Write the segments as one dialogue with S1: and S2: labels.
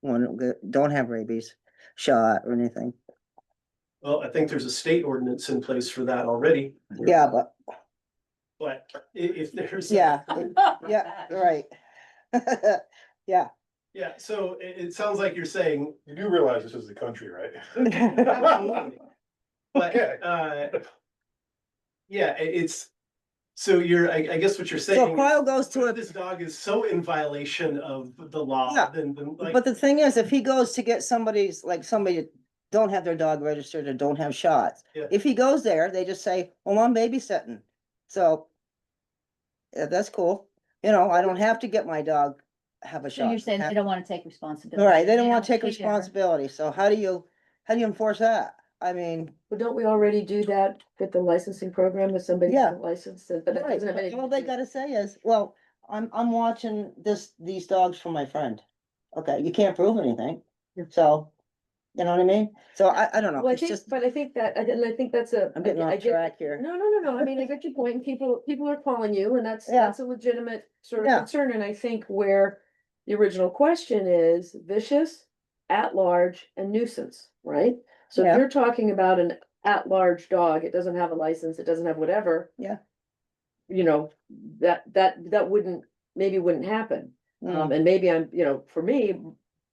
S1: one, that don't have rabies shot or anything.
S2: Well, I think there's a state ordinance in place for that already,
S1: Yeah, but,
S2: but i- if there's. a-
S1: yeah, it- yeah, right. Yeah,
S2: Yeah, so it, it sounds like you're saying,
S3: You do realize this is the country, right?
S2: absolutely. But,
S3: Okay.
S2: uh, yeah, i- it's, so you're, I, I guess what you're
S1: so if
S2: saying,
S1: Kyle goes to
S2: if
S1: a,
S2: this dog is so in violation of the law,
S1: Yeah,
S2: then, then like.
S1: but the thing is, if he goes to get somebody's, like somebody that don't have their dog registered or don't have shots.
S2: Yeah.
S1: If he goes there, they just say, well, I'm babysitting, so. Yeah, that's cool, you know, I don't have to get my dog have a shot.
S4: So you're saying they don't wanna take responsibility.
S1: All right, they don't wanna take
S4: care.
S1: responsibility, so how do you, how do you enforce that? I mean,
S5: Well, don't we already do that with the licensing program if somebody's
S1: Yeah.
S5: not licensed, but that
S1: right,
S5: doesn't have
S1: but
S5: anything.
S1: all they
S5: to do-
S1: gotta say is, well, I'm, I'm watching this, these dogs from my friend. Okay, you can't prove anything, so, you know what I mean? So I, I don't know,
S5: Well, I
S1: it's
S5: think,
S1: just,
S5: but I think that, I did- I think that's a.
S1: I'm getting
S5: I
S1: off
S5: get-
S1: track here.
S5: No, no, no, no, I mean, I get your point, and people, people are calling you, and that's,
S1: Yeah.
S5: that's a legitimate sort
S1: Yeah.
S5: of concern, and I think where. The original question is vicious, at-large, and nuisance, right? So
S1: Yeah.
S5: if you're talking about an at-large dog, it doesn't have a license, it doesn't have whatever.
S1: Yeah.
S5: You know, that, that, that wouldn't, maybe wouldn't happen.
S1: Mm,
S5: Um, and maybe I'm, you know, for me,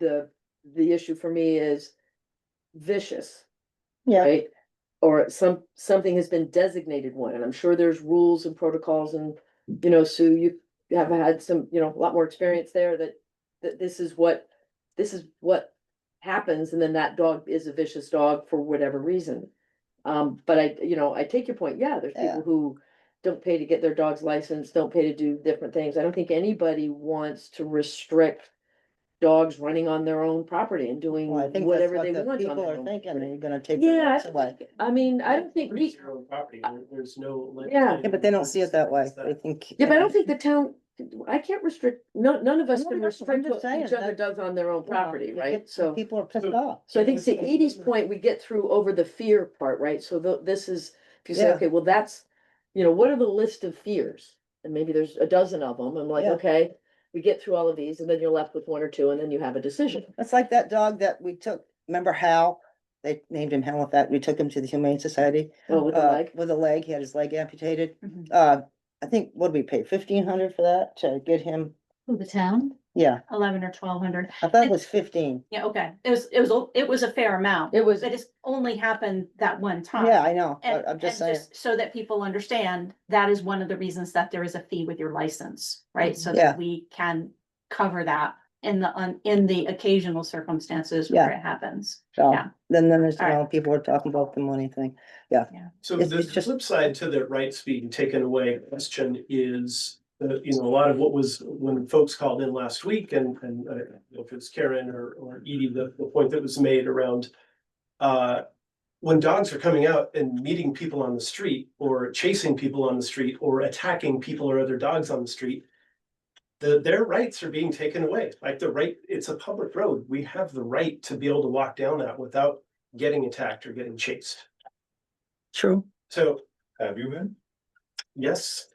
S5: the, the issue for me is vicious,
S1: Yeah,
S5: right? Or some, something has been designated one, and I'm sure there's rules and protocols and, you know, Sue, you have had some, you know, a lot more experience there that, that this is what, this is what happens, and then that dog is a vicious dog for whatever reason. Um, but I, you know, I take your point, yeah, there's
S1: Yeah.
S5: people who don't pay to get their dog's license, don't pay to do different things. I don't think anybody wants to restrict dogs running on their own property and doing
S1: Mm, well, I think that's
S5: whatever
S1: what
S5: they
S1: the
S5: want. on
S1: people
S5: their
S1: are
S5: own
S1: thinking,
S5: property.
S1: they're gonna take. their
S5: Yeah,
S1: dogs
S5: I
S1: away.
S5: don't think- I mean, I don't think
S2: Pretty
S5: we,
S2: zero Property, there- there's no.
S5: Yeah.
S1: Yeah, but they don't see it that way, they think.
S5: yeah, but I don't think the town, I can't restrict, no, none of us
S1: No,
S5: can
S1: no, I'm
S5: restrict
S1: just
S5: what
S1: saying
S5: each other
S1: that-
S5: does on their own
S1: you know,
S5: property,
S1: you
S5: right?
S1: get-
S5: So, hmm,
S1: People are pissed off.
S5: so I think to Edie's point, we get through over the fear part, right? So tho- this is, if you say,
S1: Yeah.
S5: okay, well, that's, you know, what are the list of fears? And maybe there's a dozen of them. I'm like,
S1: Yeah.
S5: okay, we get through all of these and then you're left with one or two and then you have a decision.
S1: It's like that dog that we took, remember Hal? They named him Hal with that, we took him to the Humane Society.
S5: Oh, with the
S1: uh,
S5: leg.
S1: With a leg, he had his leg amputated.
S4: Mhm.
S1: Uh, I think, what did we pay, fifteen hundred for that to get him?
S4: Who, the town,
S1: Yeah,
S4: eleven or twelve hundred,
S1: I thought it was fifteen.
S6: Yeah, okay, it was, it was, a- it was a fair amount,
S5: It was,
S6: but it's only happened that one time.
S1: Yeah, I know,
S6: And,
S1: but I'm just
S6: and
S1: saying,
S6: So that people understand, that is one of the reasons that there is a fee with your license, right? So
S1: Yeah.
S6: that we can cover that in the, un- in the occasional circumstances where it happens.
S1: so,
S6: yeah.
S1: then, then there's, you
S6: Alright.
S1: know, people are talking about the money thing.
S2: So
S1: It's-
S2: the
S1: it's just-
S2: flip side to the rights being taken away question is, uh, you know, a lot of what was, when folks called in last week and, and I don't know if it's Karen or, or Edie, the, the point that was made around uh, when dogs are coming out and meeting people on the street or chasing people on the street or attacking people or other dogs on the street, the, their rights are being taken away. Like the right, it's a public road. We have the right to be able to walk down that without getting attacked or getting chased.
S1: True.
S2: So
S3: Have you been?
S2: Yes.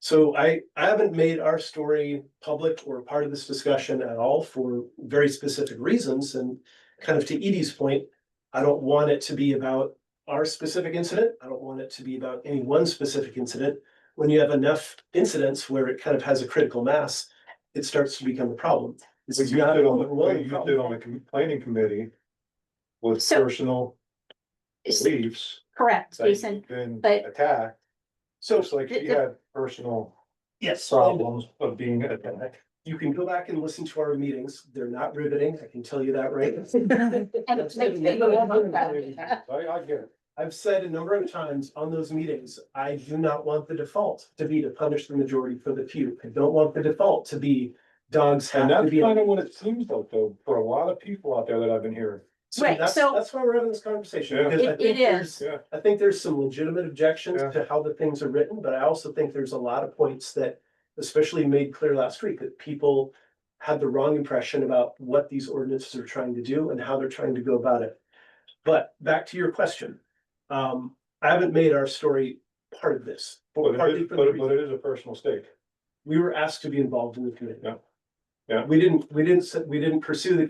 S2: So I, I haven't made our story public or part of this discussion at all for very specific reasons and kind of to Edie's point, I don't want it to be about our specific incident. I don't want it to be about any one specific incident. When you have enough incidents where it kind of has a critical mass, it starts to become a problem. This
S3: But
S2: is
S3: you
S2: not
S3: did on,
S2: a
S3: the
S2: one
S3: what you did
S2: problem.
S3: on the complaining committee with
S6: So-
S3: personal
S6: It's-
S3: beliefs.
S6: Correct,
S3: that you've
S6: Jason,
S3: Been
S6: but-
S3: attacked,
S2: So,
S3: just like
S6: the-
S3: she
S6: the-
S3: had personal
S2: yes, um,
S3: problems of being attacked.
S2: you can go back and listen to our meetings. They're not riveting. I can tell you that right.
S6: and
S3: I, I get it.
S2: I've said a number of times on those meetings, I do not want the default to be to punish the majority for the few. I don't want the default to be dogs have
S3: And
S2: to
S3: that's
S2: be.
S3: kind of what it seems like though, for a lot of people out there that I've been hearing.
S2: So
S6: Right,
S2: that's,
S6: so-
S2: that's why we're having this conversation.
S3: Yeah.
S2: because I
S6: It-
S2: think
S6: it
S2: there's-
S6: is.
S3: Yeah.
S2: I think there's some legitimate objections
S3: Yeah.
S2: to how the things are written, but I also think there's a lot of points that especially made clear last week that people had the wrong impression about what these ordinances are trying to do and how they're trying to go about it. But back to your question, um, I haven't made our story part of this.
S3: But it
S2: partly
S3: is,
S2: for the
S3: but it-
S2: reason-
S3: but it is a personal stake.
S2: we were asked to be involved in the committee.
S3: Yeah. Yeah.
S2: We didn't, we didn't, s- we didn't pursue the